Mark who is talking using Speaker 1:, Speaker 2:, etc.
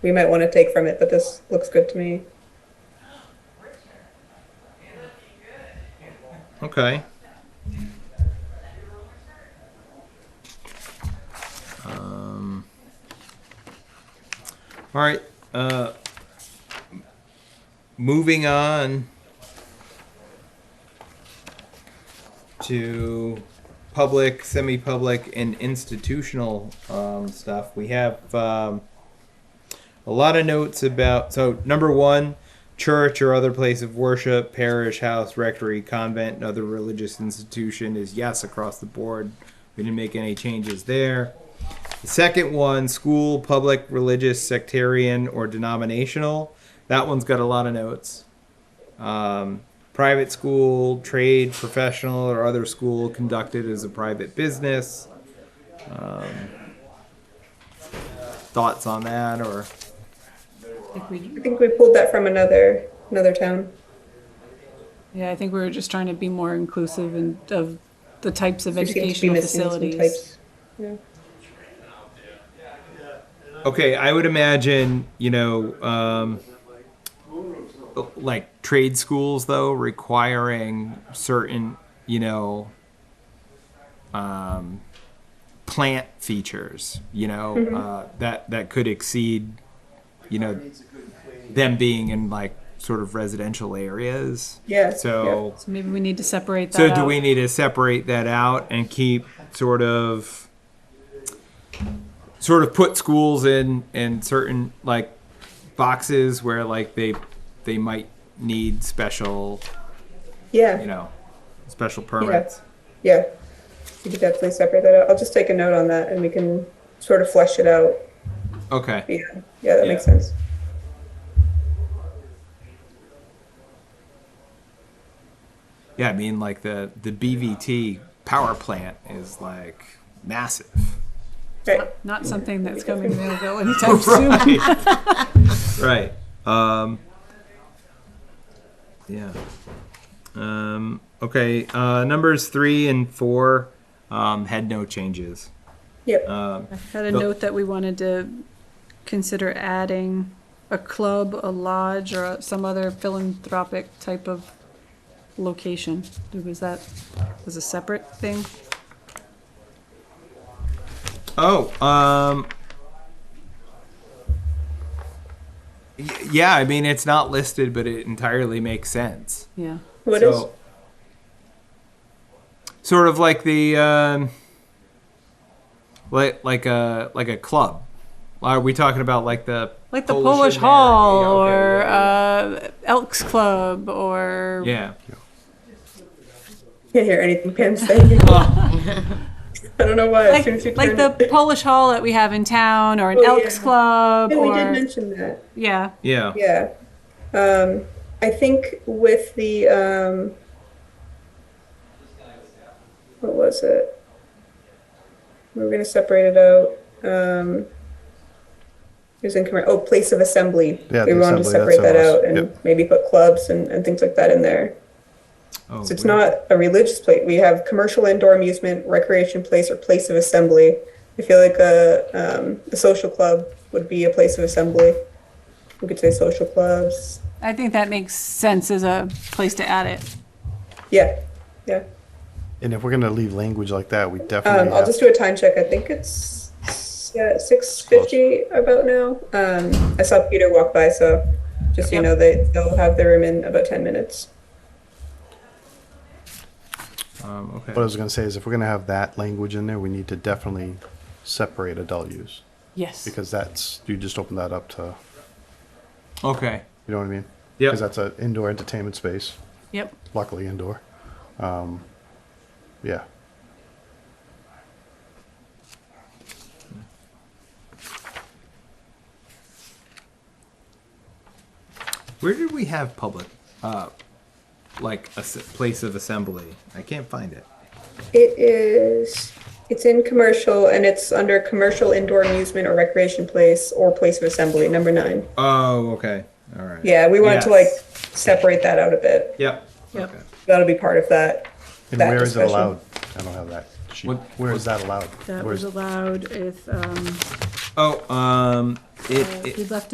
Speaker 1: we might want to take from it, but this looks good to me.
Speaker 2: Okay. Um, all right. Uh, moving on to public, semi-public, and institutional um, stuff. We have um, a lot of notes about. So number one church or other place of worship, parish, house, rectory, convent, and other religious institution is yes across the board. We didn't make any changes there. The second one, school, public, religious, sectarian, or denominational. That one's got a lot of notes. Um, private school, trade, professional, or other school conducted as a private business. Um, thoughts on that or
Speaker 3: Like we,
Speaker 1: I think we pulled that from another another town.
Speaker 3: yeah, I think we were just trying to be more inclusive and of the types of
Speaker 1: We seem to be
Speaker 3: educational
Speaker 1: missing some
Speaker 3: facilities.
Speaker 1: types. Yeah.
Speaker 2: Okay, I would imagine, you know, um, like trade schools, though, requiring certain, you know, um, plant features, you know, uh, that, that could exceed, you know, them being in like sort of residential areas.
Speaker 1: Yeah.
Speaker 2: So,
Speaker 3: So maybe we need to separate that
Speaker 2: so
Speaker 3: out.
Speaker 2: do we need to separate that out and keep sort of sort of put schools in in certain like boxes where like they they might need special
Speaker 1: Yeah.
Speaker 2: you know special permits.
Speaker 1: Yeah. We could definitely separate that out. I'll just take a note on that and we can sort of flesh it out.
Speaker 2: Okay.
Speaker 1: Yeah. Yeah, that makes
Speaker 2: Yeah.
Speaker 1: sense.
Speaker 2: Yeah, I mean like the the BVT power plant is like massive.
Speaker 1: Right.
Speaker 3: Not something that's coming available anytime soon.
Speaker 2: right. Um, yeah. Um, okay. Uh, numbers three and four um, had no changes.
Speaker 1: Yep.
Speaker 2: Um,
Speaker 3: I had a note that we wanted to consider adding a club, a lodge, or some other philanthropic type of location. Was that, was a separate thing?
Speaker 2: oh. Um, y- yeah. I mean, it's not listed, but it entirely makes sense.
Speaker 3: Yeah.
Speaker 1: What is?
Speaker 2: so, Sort of like the um, like like a like a club. Are we talking about like the
Speaker 3: Like the
Speaker 2: Polish
Speaker 3: Polish
Speaker 2: and
Speaker 3: Hall
Speaker 2: Mary, yeah,
Speaker 3: or
Speaker 2: okay,
Speaker 3: uh, Elks Club or uh,
Speaker 2: yeah?
Speaker 1: Can't hear anything Pam's saying. I don't know why. as soon as you
Speaker 3: like, like
Speaker 1: turned
Speaker 3: the
Speaker 1: it-
Speaker 3: Polish Hall that we have in town or an
Speaker 1: Oh,
Speaker 3: Elks
Speaker 1: yeah.
Speaker 3: Club
Speaker 1: Yeah, we did
Speaker 3: or
Speaker 1: mention that.
Speaker 3: yeah.
Speaker 2: Yeah.
Speaker 1: Yeah. Um, I think with the um, what was it? We were going to separate it out. Um, it was in commer- oh, place of assembly.
Speaker 4: Yeah,
Speaker 1: we
Speaker 4: the
Speaker 1: wanted to
Speaker 4: assembly, that's
Speaker 1: separate that
Speaker 4: what it was.
Speaker 1: out and
Speaker 4: Yep.
Speaker 1: maybe put clubs and, and things like that in there.
Speaker 2: Oh,
Speaker 1: So it's
Speaker 2: weird.
Speaker 1: not a religious place. We have commercial indoor amusement, recreation place, or place of assembly. I feel like a, um, a social club would be a place of assembly. We could say social clubs.
Speaker 3: I think that makes sense as a place to add it.
Speaker 1: Yeah, yeah.
Speaker 4: And if we're gonna leave language like that, we
Speaker 1: Um,
Speaker 4: definitely.
Speaker 1: I'll
Speaker 4: have-
Speaker 1: just do a time check. I think it's yeah, six fifty about now. Um, I saw Peter walk by, so just so you
Speaker 3: Yep.
Speaker 1: know they they'll have their room in about ten minutes.
Speaker 2: Um, okay.
Speaker 4: What I was gonna say is, if we're gonna have that language in there, we need to definitely separate adult use
Speaker 3: Yes.
Speaker 4: because that's you just open that up to,
Speaker 2: Okay.
Speaker 4: you know what I mean?
Speaker 2: Yep.
Speaker 4: Because that's an indoor entertainment space,
Speaker 3: Yep.
Speaker 4: luckily indoor. Um, yeah.
Speaker 2: Where did we have public, uh, like a s- place of assembly? I can't find it.
Speaker 1: It is. It's in commercial, and it's under commercial indoor amusement or recreation place or place of assembly, number nine.
Speaker 2: Oh, okay. All right.
Speaker 1: Yeah, we wanted to like
Speaker 2: Yes.
Speaker 1: separate that out a bit.
Speaker 2: Yep.
Speaker 3: Yep.
Speaker 2: Okay.
Speaker 1: That'll be part of that.
Speaker 4: And
Speaker 1: that
Speaker 4: where is it
Speaker 1: discussion.
Speaker 4: allowed? I don't have that sheet.
Speaker 2: What-
Speaker 4: Where is that allowed?
Speaker 3: That
Speaker 4: Where
Speaker 3: was
Speaker 4: is-
Speaker 3: allowed if um,
Speaker 2: Oh, um, it,
Speaker 3: uh,
Speaker 2: it
Speaker 3: we left